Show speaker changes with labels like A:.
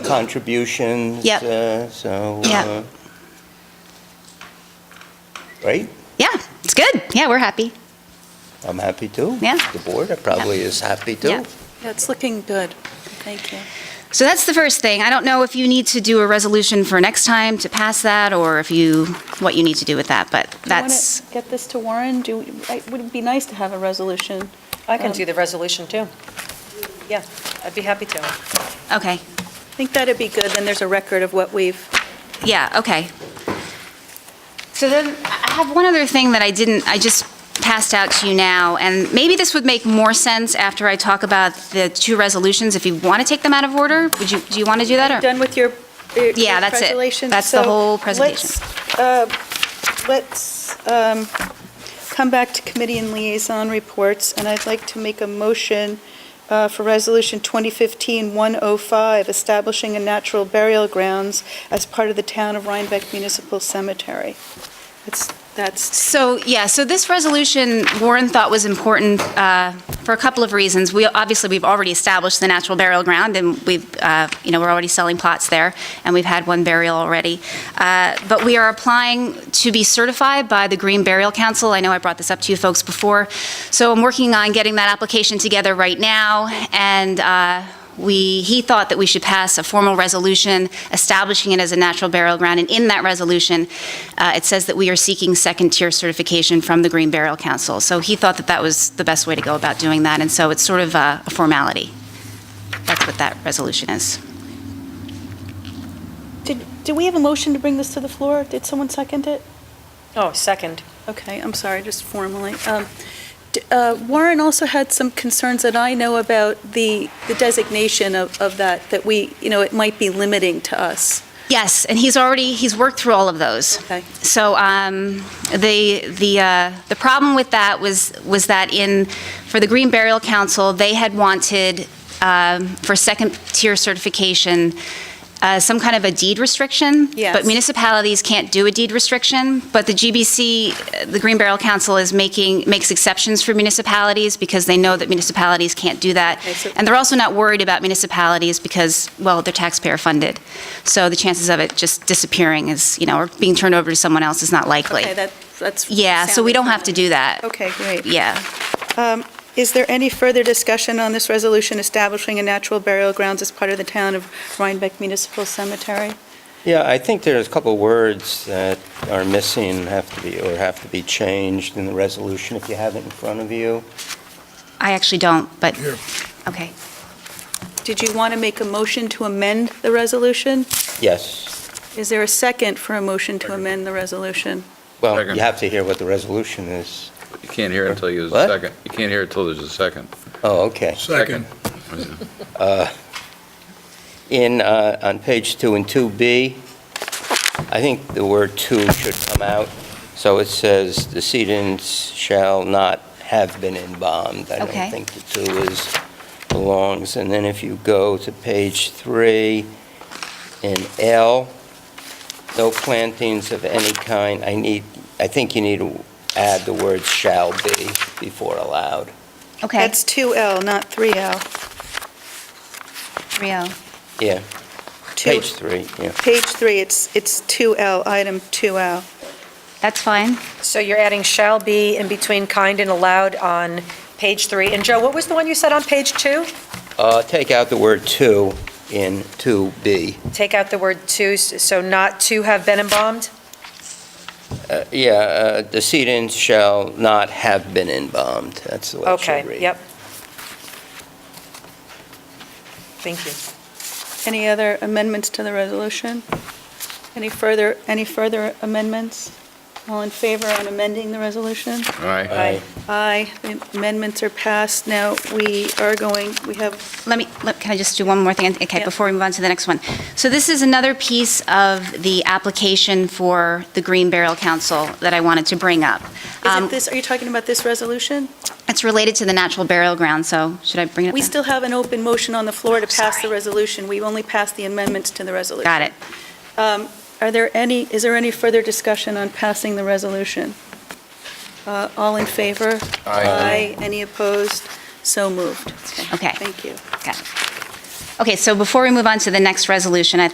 A: contributions.
B: Yep.
A: uh, So.
B: Yep.
A: uh, Right?
B: Yeah, it's good. Yeah, we're happy.
A: I'm happy too.
B: Yeah.
A: The board probably is happy
B: Yeah.
A: too.
C: Yeah, it's looking good. Thank you.
B: So that's the first thing. I don't know if you need to do a resolution for next time to pass that, or if you, what you need to do with that, but that's,
C: You want to get this to Warren? Do, it would be nice to have a resolution.
D: I can
C: Um,
D: do the resolution, too. Yeah, I'd be happy to.
B: okay.
C: I think that'd be good, then there's a record of what we've,
B: Yeah, okay. So then, I have one other thing that I didn't, I just passed out to you now, and maybe this would make more sense after I talk about the two resolutions, if you want to take them out of order, would you, do you want to do that, or?
C: done with your, your
B: Yeah, that's it.
C: presentation.
B: That's the
C: So
B: whole presentation.
C: let's, uh, Let's um, come back to committee and liaison reports, and I'd like to make a motion uh, for Resolution 2015-105, establishing a natural burial grounds as part of the Town of Rhinebeck Municipal Cemetery. It's- That's
B: So, yeah, so this resolution Warren thought was important uh, for a couple of reasons. We, obviously, we've already established the natural burial ground, and we've, uh, you know, we're already selling plots there, and we've had one burial already. Uh, But we are applying to be certified by the Green Burial Council. I know I brought this up to you folks before. So I'm working on getting that application together right now, and uh, we, he thought that we should pass a formal resolution establishing it as a natural burial ground, and in that resolution, uh, it says that we are seeking second-tier certification from the Green Burial Council. So he thought that that was the best way to go about doing that, and so it's sort of uh, a formality. That's what that resolution is.
C: Did, do we have a motion to bring this to the floor? Did someone second it?
D: Oh, second.
C: Okay, I'm sorry, just formally. Um, d- uh, Warren also had some concerns that I know about the, the designation of, of that, that we, you know, it might be limiting to us.
B: Yes, and he's already, he's worked through all of those.
C: Okay.
B: So um, the, the, uh, the problem with that was, was that in, for the Green Burial Council, they had wanted um, for second-tier certification, uh, some kind of a deed restriction.
C: Yes.
B: But municipalities can't do a deed restriction, but the GBC, uh, the Green Barrel Council is making, makes exceptions for municipalities because they know that municipalities can't do that.
C: Okay, so-
B: And they're also not worried about municipalities because, well, they're taxpayer-funded. So the chances of it just disappearing is, you know, or being turned over to someone else is not likely.
C: Okay, that, that's.
B: Yeah, so we don't have to do that.
C: Okay, great.
B: Yeah.
C: Um, Is there any further discussion on this resolution establishing a natural burial grounds as part of the town of Rhinebeck Municipal Cemetery?
A: Yeah, I think there's a couple words that are missing, have to be, or have to be changed in the resolution if you have it in front of you.
B: I actually don't, but, okay.
C: Did you want to make a motion to amend the resolution?
A: Yes.
C: Is there a second for a motion to amend the resolution?
A: Well,
E: Second.
A: you have to hear what the resolution is.
E: You can't hear it until you,
A: What?
E: there's a second. You can't hear it till there's a second.
A: Oh, okay.
E: Second.
A: In, uh, on page two and 2B, I think the word "to" should come out. So it says, "The "Decedents shall not have been embalmed." I
B: Okay.
A: don't think the "to" is, belongs. And then if you go to page three, in L, "No plantings of any kind." I need, I think you need to add the word "shall be" before allowed.
B: Okay.
C: That's 2L, not 3L.
B: Rio.
A: Yeah,
C: Two-
A: page three, yeah.
C: Page three, it's, it's 2L, item 2L.
B: That's fine.
D: So you're adding shall be in between kind and allowed on page three. And Joe, what was the one you said on page two?
A: Uh, Take out the word "to" in 2B.
D: Take out the word to, so not to have been embalmed?
A: Uh, Yeah, uh, decedents shall not have been embalmed, that's the way it should read.
D: Okay, yep. Thank you.
C: Any other amendments to the resolution? Any further, any further amendments? All in favor on amending the resolution?
E: All right.
A: Aye.
C: Aye, the amendments are passed. Now, we are going, we have,
B: let me, let- can I just do one more thing? Okay,
C: Yeah.
B: before we move on to the next one. So this is another piece of the application for the Green Barrel Council that I wanted to bring up.
C: is
B: Um,
C: it this, are you talking about this resolution?
B: It's related to the natural burial ground, so should I bring it up?
C: We
B: now?
C: still have an open motion on the floor to pass the
B: Sorry.
C: resolution. We've only passed the amendments to the resolution.
B: Got it.
C: Um, Are there any, is there any further discussion on passing the resolution? Uh, All in favor? Aye. Any opposed? So moved.
B: Okay.
C: Thank you.
B: Got it. Okay, so before we move on to the next resolution, I